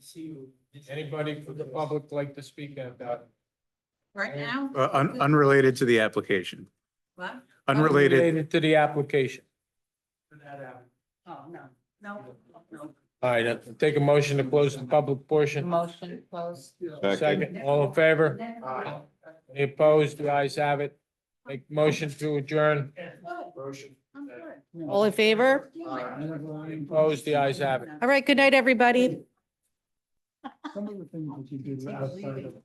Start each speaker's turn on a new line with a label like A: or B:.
A: Anybody from the public like to speak about?
B: Right now?
C: Uh, un- unrelated to the application,
B: What?
C: unrelated.
A: To the application.
B: Oh, no, no, no.
A: All right, uh, take a motion to close the public portion.
B: Motion closed.
A: Second, all in favor?
B: Aye.
A: Any opposed? The ayes have it. Make motion to adjourn.
B: I'm good.
D: All in favor?
A: Opposed? The ayes have it.
D: All right, good night, everybody.
E: Some of the things that you do outside of